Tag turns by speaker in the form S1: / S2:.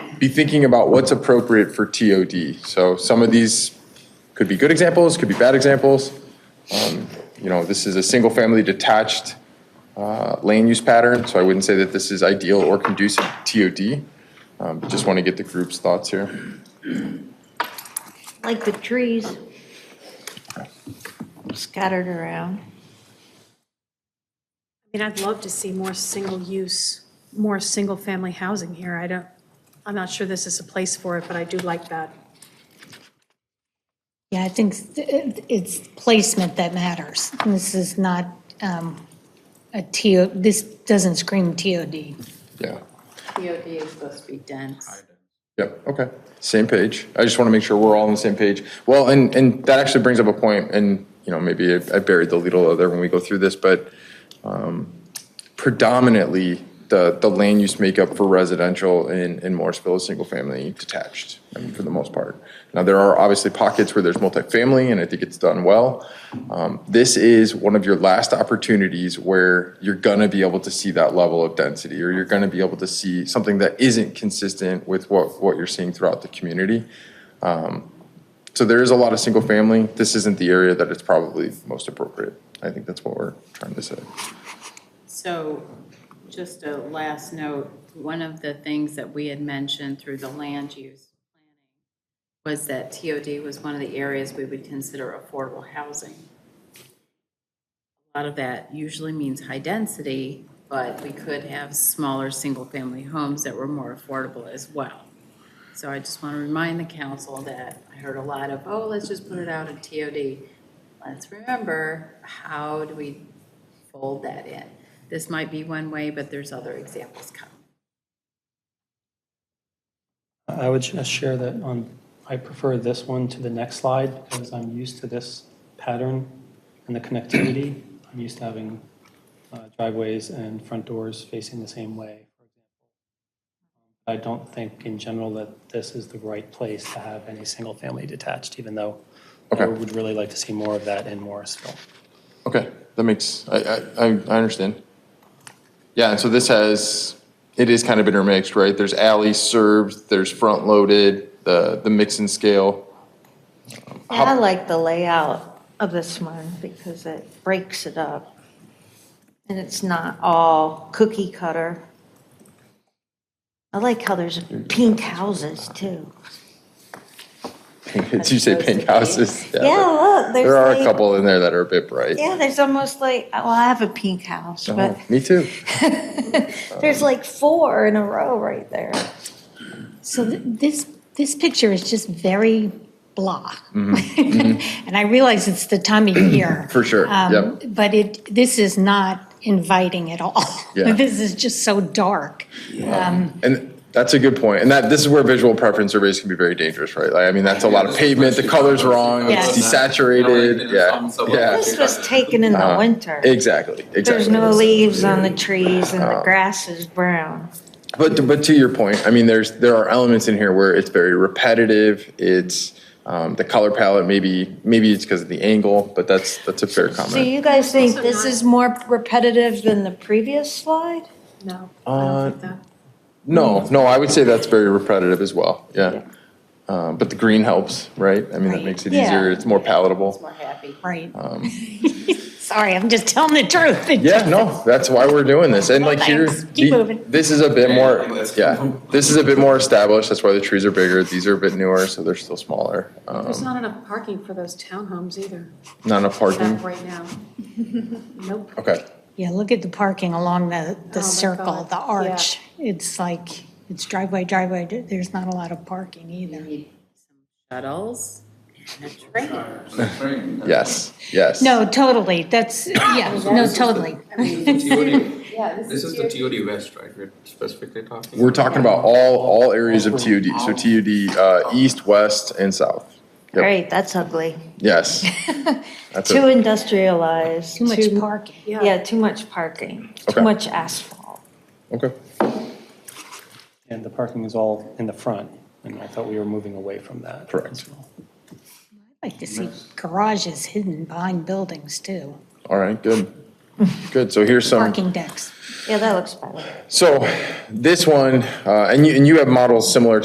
S1: be thinking about what's appropriate for TOD. So some of these could be good examples, could be bad examples. Um, You know, this is a single-family detached uh, land use pattern, so I wouldn't say that this is ideal or conducive to TOD. Um, Just want to get the group's thoughts here.
S2: like the trees scattered around.
S3: I mean, I'd love to see more single-use, more single-family housing here. I don't, I'm not sure this is a place for it, but I do like that.
S4: Yeah, I think s- it- it's placement that matters. This is not um, a TO, this doesn't scream TOD.
S1: Yeah,
S5: POD is supposed to be dense.
S1: yep, okay, same page. I just want to make sure we're all on the same page. Well, and, and that actually brings up a point, and, you know, maybe I I buried the lead a little there when we go through this, but um, predominantly, the, the land use makeup for residential in, in Morrisville is single-family detached, I mean, for the most part. Now, there are obviously pockets where there's multifamily, and I think it's done well. Um, This is one of your last opportunities where you're gonna be able to see that level of density, or you're gonna be able to see something that isn't consistent with what, what you're seeing throughout the community. Um, So there is a lot of single-family. This isn't the area that it's probably most appropriate. I think that's what we're trying to say.
S5: So just a last note, one of the things that we had mentioned through the land use planning was that TOD was one of the areas we would consider affordable housing. A lot of that usually means high density, but we could have smaller, single-family homes that were more affordable as well. So I just want to remind the council that I heard a lot of, oh, let's just put it out in TOD. Let's remember, how do we fold that in? This might be one way, but there's other examples coming.
S6: I would just share that on, I prefer this one to the next slide because I'm used to this pattern and the connectivity. I'm used to having uh, driveways and front doors facing the same way. I don't think in general that this is the right place to have any single-family detached, even though I
S1: Okay.
S6: would really like to see more of that in Morrisville.
S1: Okay, that makes, I, I, I I understand. Yeah, and so this has, it is kind of intermixed, right? There's alley served, there's front loaded, the, the mix and scale.
S2: And I like the layout of this one because it breaks it up. And it's not all cookie cutter. I like how there's pink houses too.
S1: Did you say pink houses?
S2: Yeah,
S1: there-
S2: look, there's.
S1: There are a
S2: like-
S1: couple in there that are a bit bright.
S2: Yeah, there's almost like, well, I have a pink house, but
S1: Oh, Me too.
S2: there's like four in a row right there.
S4: So th- this, this picture is just very blah. And I realize it's the time of year.
S1: Mm-hmm. For sure,
S4: um,
S1: yep.
S4: But it, this is not inviting at all.
S1: Yeah.
S4: This is just so dark. Um,
S1: And that's a good point. And that, this is where visual preference surveys can be very dangerous, right? Like, I mean, that's a lot of pavement, the color's wrong, it's
S4: Yes.
S1: desaturated, yeah, yeah.
S2: This was taken in
S1: uh-huh.
S2: the winter.
S1: Exactly, exactly.
S2: There's no leaves on the trees and
S1: Uh-huh.
S2: the grass is brown.
S1: But, but to your point, I mean, there's, there are elements in here where it's very repetitive, it's, um, the color palette, maybe, maybe it's because of the angle, but that's, that's a fair
S2: So
S1: comment.
S2: you guys think this is more repetitive than the previous slide?
S3: No, I don't think that.
S1: No, no, I would say that's very repetitive as well, yeah. Um, but the green helps, right? I mean, that
S4: Right.
S1: makes it
S2: Yeah.
S1: easier, it's more palatable.
S5: More happy.
S4: Right. Sorry, I'm just telling the truth. It
S1: Um. Yeah,
S4: just-
S1: no, that's why we're doing this, and like here,
S4: Thanks. Keep
S1: the-
S4: moving.
S1: this is a bit more,
S7: let's
S1: yeah, this is a bit more established, that's why the trees are bigger, these are a bit newer, so they're still smaller. Um,
S3: There's not enough parking for those townhomes either,
S1: not enough
S3: that
S1: parking,
S3: right now. Nope.
S1: okay.
S4: Yeah, look at the parking along the, the
S3: Oh my
S4: circle,
S3: God.
S4: the arch. It's like, it's driveway, driveway. There's not a lot of parking either.
S5: Shuttles and a train.
S1: Yes, yes.
S4: No, totally. That's, yeah, no, totally.
S7: This is the TOD West, right, we're specifically talking?
S1: We're talking about all, all areas of TOD, so TOD, uh, east, west, and south. Yep.
S2: Great, that's ugly.
S1: Yes. That's
S2: Too
S1: it.
S2: industrialized.
S4: Too much parking.
S2: Yeah, too much parking,
S1: Okay.
S2: too much asphalt.
S1: Okay.
S6: And the parking is all in the front, and I thought we were moving away from that.
S1: Correct.
S6: as well.
S4: I like to see garages hidden behind buildings too,
S1: All right, good. Good. So here's some,
S4: parking decks.
S2: Yeah, that looks better.
S1: so this one, uh, and you, and you have models similar